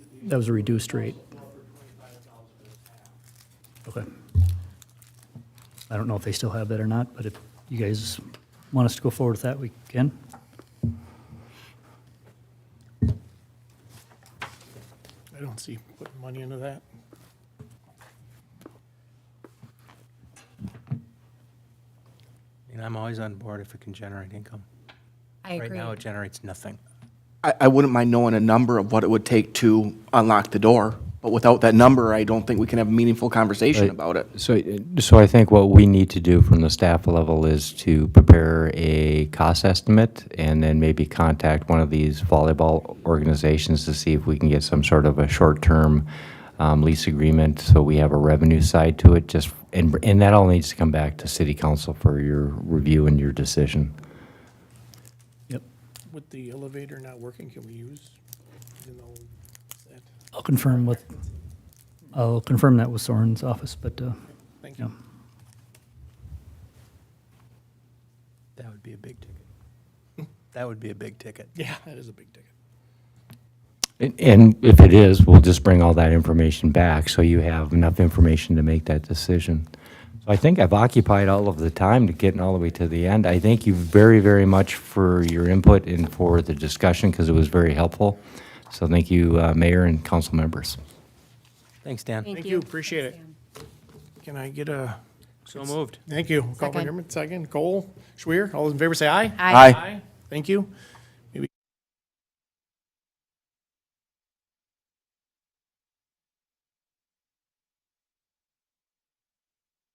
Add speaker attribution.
Speaker 1: That was a reduced rate. Okay. I don't know if they still have that or not, but if you guys want us to go forward with that, we can.
Speaker 2: I don't see putting money into that.
Speaker 3: And I'm always on board if it can generate income.
Speaker 4: I agree.
Speaker 3: Right now, it generates nothing.
Speaker 5: I, I wouldn't mind knowing a number of what it would take to unlock the door, but without that number, I don't think we can have a meaningful conversation
Speaker 6: Right.
Speaker 5: about it.
Speaker 6: So, uh, so I think what we need to do from the staff level is to prepare a cost estimate and then maybe contact one of these volleyball organizations to see if we can get some sort of a short-term um, lease agreement, so we have a revenue side to it, just, and, and that all needs to come back to city council for your review and your decision.
Speaker 1: Yep.
Speaker 2: With the elevator not working, can we use, even though that,
Speaker 1: I'll confirm with, I'll confirm that with Soren's office, but, uh,
Speaker 2: thank
Speaker 1: yeah.
Speaker 2: you.
Speaker 3: That would be a big ticket. That would be a big ticket.
Speaker 2: Yeah, that is a big ticket.
Speaker 6: And- And if it is, we'll just bring all that information back, so you have enough information to make that decision. So I think I've occupied all of the time to getting all the way to the end. I thank you very, very much for your input and for the discussion, because it was very helpful. So thank you, uh, Mayor and council members.
Speaker 3: Thanks, Dan.
Speaker 2: Thank you, appreciate it. Can I get a,
Speaker 3: So moved.
Speaker 2: thank you, Call
Speaker 4: Second.
Speaker 2: McDermott, second, Cole, Schwer, all those in favor say aye?
Speaker 4: Aye.
Speaker 5: Aye.
Speaker 2: Thank you.